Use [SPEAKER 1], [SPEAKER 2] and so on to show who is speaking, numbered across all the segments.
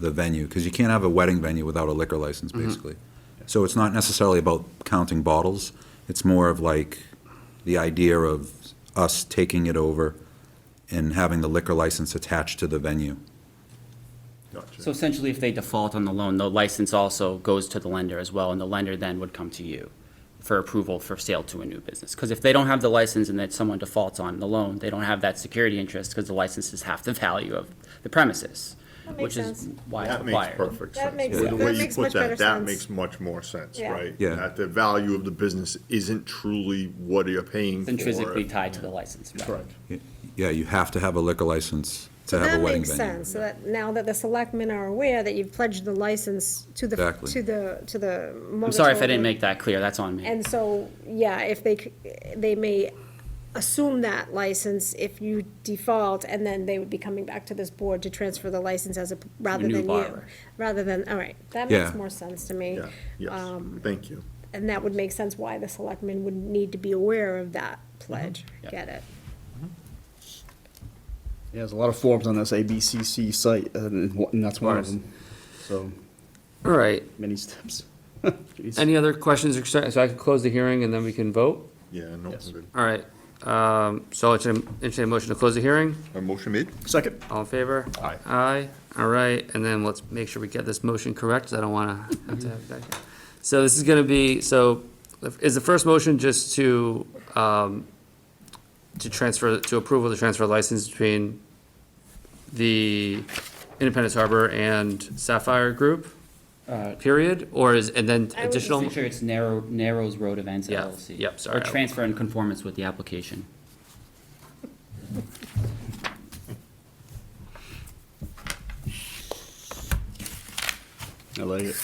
[SPEAKER 1] the venue, because you can't have a wedding venue without a liquor license, basically. So it's not necessarily about counting bottles, it's more of like the idea of us taking it over and having the liquor license attached to the venue.
[SPEAKER 2] So essentially, if they default on the loan, the license also goes to the lender as well, and the lender then would come to you for approval for sale to a new business. Because if they don't have the license and that someone defaults on the loan, they don't have that security interest because the license is half the value of the premises,
[SPEAKER 3] That makes
[SPEAKER 2] which is
[SPEAKER 3] sense.
[SPEAKER 2] why it's
[SPEAKER 4] That makes
[SPEAKER 2] required.
[SPEAKER 4] perfect
[SPEAKER 3] That
[SPEAKER 4] sense.
[SPEAKER 3] makes-
[SPEAKER 4] The
[SPEAKER 3] that
[SPEAKER 4] way you
[SPEAKER 3] makes
[SPEAKER 4] put
[SPEAKER 3] much better
[SPEAKER 4] that, that
[SPEAKER 3] sense.
[SPEAKER 4] makes much more sense,
[SPEAKER 3] Yeah.
[SPEAKER 4] right?
[SPEAKER 1] Yeah.
[SPEAKER 4] That the value of the business isn't truly what you're paying
[SPEAKER 2] It's
[SPEAKER 4] for.
[SPEAKER 2] intrinsically tied to the license. right.
[SPEAKER 4] Correct.
[SPEAKER 1] Yeah, you have to have a liquor license to have
[SPEAKER 3] That
[SPEAKER 1] a wedding
[SPEAKER 3] makes
[SPEAKER 1] venue.
[SPEAKER 3] sense, so that now that the selectmen are aware that you've pledged the license to the,
[SPEAKER 1] Exactly.
[SPEAKER 3] to the, to the.
[SPEAKER 2] I'm sorry if I didn't make that clear, that's on me.
[SPEAKER 3] And so, yeah, if they, c- they may assume that license if you default, and then they would be coming back to this board to transfer the license as a, rather
[SPEAKER 2] new
[SPEAKER 3] than you.
[SPEAKER 2] borrower.
[SPEAKER 3] Rather than, all right, that makes
[SPEAKER 1] Yeah.
[SPEAKER 3] more sense to me.
[SPEAKER 4] Yeah, yes,
[SPEAKER 3] Um,
[SPEAKER 4] thank you.
[SPEAKER 3] And that would make sense why the selectmen would need to be aware of that pledge.
[SPEAKER 2] Yeah.
[SPEAKER 3] Get it?
[SPEAKER 5] Yeah, there's a lot of forms on this ABCC site, uh, and wha- and that's one of
[SPEAKER 6] Of
[SPEAKER 5] them. So,
[SPEAKER 6] All right,
[SPEAKER 5] many steps. Jeez.
[SPEAKER 6] any other questions, or concerns? so I can close the hearing and then we can vote?
[SPEAKER 4] Yeah, no,
[SPEAKER 5] Yes.
[SPEAKER 4] good.
[SPEAKER 6] All right, um, so I'll entertain entertain a motion to close the hearing,
[SPEAKER 4] A motion made?
[SPEAKER 5] Second.
[SPEAKER 6] all in favor?
[SPEAKER 4] Aye.
[SPEAKER 6] Aye, all right, and then let's make sure we get this motion correct, 'cause I don't wanna have to have that. So this is gonna be, so, is the first motion just to, um, to transfer, to approve of the transfer license between the Independence Harbor and Sapphire Group,
[SPEAKER 2] Uh,
[SPEAKER 6] period, or is, and then
[SPEAKER 3] I would just
[SPEAKER 6] additional?
[SPEAKER 2] Make sure it's narrow, Narrows Road Events
[SPEAKER 6] Yeah,
[SPEAKER 2] LLC.
[SPEAKER 6] yep, sorry.
[SPEAKER 2] Or transfer in conformance with the application.
[SPEAKER 5] I like it.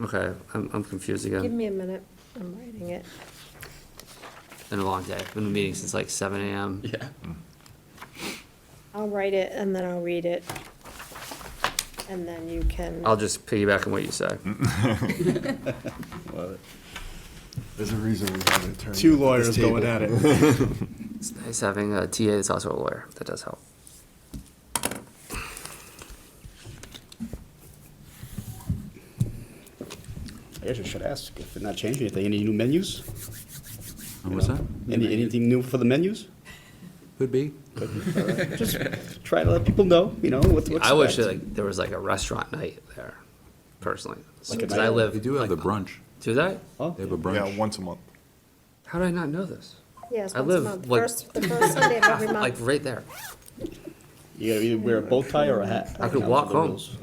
[SPEAKER 6] Okay, I'm, I'm confused
[SPEAKER 3] Give
[SPEAKER 6] again.
[SPEAKER 3] me a minute, I'm writing it.
[SPEAKER 6] Been a long day. Been meeting since like seven AM.
[SPEAKER 2] Yeah.
[SPEAKER 3] I'll write it and then I'll read it. And then you can.
[SPEAKER 6] I'll just piggyback on what you say.
[SPEAKER 4] There's a reason we have an attorney.
[SPEAKER 5] Two lawyers going at it.
[SPEAKER 6] It's nice having a TA that's also a lawyer. That does help.
[SPEAKER 5] I guess I should ask if they're not changing anything. Any new menus?
[SPEAKER 1] What's that?
[SPEAKER 5] Any, anything new for the menus?
[SPEAKER 1] Could be.
[SPEAKER 5] Just try to let people know, you know, what to expect.
[SPEAKER 6] I wish like there was like a restaurant night there, personally.
[SPEAKER 5] Like a
[SPEAKER 6] Because I
[SPEAKER 5] night-
[SPEAKER 6] live.
[SPEAKER 1] They do have
[SPEAKER 6] like,
[SPEAKER 1] the brunch.
[SPEAKER 6] Do they?
[SPEAKER 5] Oh,
[SPEAKER 1] They have a
[SPEAKER 4] Yeah,
[SPEAKER 1] brunch.
[SPEAKER 4] once a month.
[SPEAKER 6] How did I not know this?
[SPEAKER 3] Yes,
[SPEAKER 6] I
[SPEAKER 3] once a
[SPEAKER 6] live,
[SPEAKER 3] month,
[SPEAKER 6] like-
[SPEAKER 3] first, the first Sunday of every
[SPEAKER 6] Like
[SPEAKER 3] month.
[SPEAKER 6] right there.
[SPEAKER 5] You gotta either wear a bow tie or a hat.
[SPEAKER 6] I could
[SPEAKER 5] Those
[SPEAKER 6] walk
[SPEAKER 5] are the
[SPEAKER 6] home.
[SPEAKER 5] rules.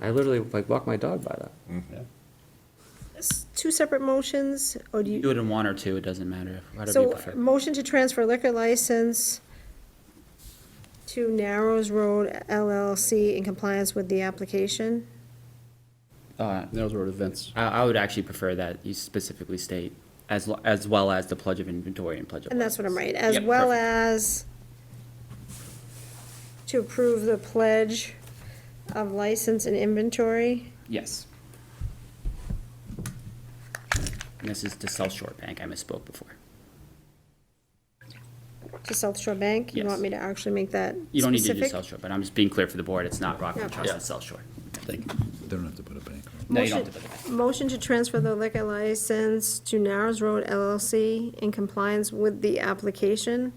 [SPEAKER 6] I literally like walk my dog by that.
[SPEAKER 5] Yeah.
[SPEAKER 3] S- Two separate motions, or do
[SPEAKER 2] Do
[SPEAKER 3] you,
[SPEAKER 2] it in one or two, it doesn't matter, whatever you
[SPEAKER 3] so,
[SPEAKER 2] prefer.
[SPEAKER 3] motion to transfer liquor license to Narrows Road LLC in compliance with the application?
[SPEAKER 2] Uh,
[SPEAKER 5] Those were events.
[SPEAKER 2] I, I would actually prefer that you specifically state as, lo- as well as the pledge of inventory and pledge of.
[SPEAKER 3] And that's what I'm
[SPEAKER 2] license.
[SPEAKER 3] right, as
[SPEAKER 2] Yep,
[SPEAKER 3] well
[SPEAKER 2] perfect.
[SPEAKER 3] as to approve the pledge of license and inventory.
[SPEAKER 2] Yes. And this is to South Shore Bank, I misspoke before.
[SPEAKER 3] To South Shore Bank? You
[SPEAKER 2] Yes.
[SPEAKER 3] want me to actually make that
[SPEAKER 2] You don't need to do
[SPEAKER 3] specific?
[SPEAKER 2] South Shore, but I'm just being clear for the board, it's not Rockland
[SPEAKER 3] Yeah.
[SPEAKER 2] Trust,
[SPEAKER 6] Yeah.
[SPEAKER 2] it's South Shore.
[SPEAKER 5] Thank you.
[SPEAKER 1] They don't have to put a bank on it.
[SPEAKER 2] No, you don't have
[SPEAKER 3] Motion-
[SPEAKER 2] to put it back.
[SPEAKER 3] Motion to transfer the liquor license to Narrows Road LLC in compliance with the application,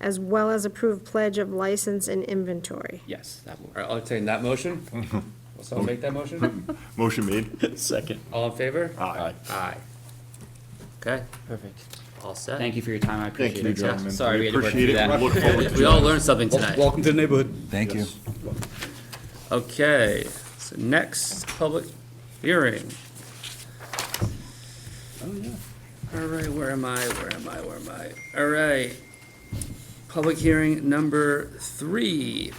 [SPEAKER 3] as well as approved pledge of license and inventory.
[SPEAKER 2] Yes, that will.
[SPEAKER 6] All right, I'll entertain that motion. Will someone make that motion?
[SPEAKER 4] Motion made?
[SPEAKER 5] Second.
[SPEAKER 6] All in favor?
[SPEAKER 4] Aye.
[SPEAKER 6] Aye. Okay,
[SPEAKER 2] Perfect.
[SPEAKER 6] all set.
[SPEAKER 2] Thank you for your time, I appreciate
[SPEAKER 4] Thank
[SPEAKER 2] it.
[SPEAKER 4] you, gentlemen.
[SPEAKER 2] Sorry we had to work
[SPEAKER 4] Appreciate
[SPEAKER 2] through
[SPEAKER 4] it.
[SPEAKER 2] that.
[SPEAKER 4] Look forward to
[SPEAKER 6] We all learned something tonight.
[SPEAKER 5] Welcome to the neighborhood.
[SPEAKER 1] Thank you.
[SPEAKER 6] Okay, so next public hearing.
[SPEAKER 5] Oh, yeah.
[SPEAKER 6] All right, where am I? Where am I? Where am I? All right. Public hearing number three.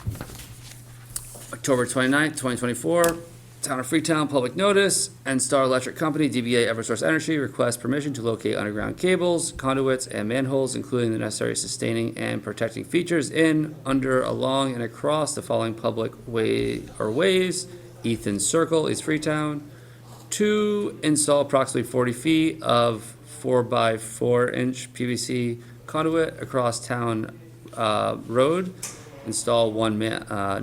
[SPEAKER 6] October 29th, twenty-four, Town of Freetown, public notice, Star Electric Company, DBA Eversource Energy, requests permission to locate underground cables, conduits, and manholes, including the necessary sustaining and protecting features in, under, along, and across the following public way or ways. Ethan Circle, East Freetown, to install approximately forty feet of four by four inch PVC conduit across town, uh, road. Install one man, uh,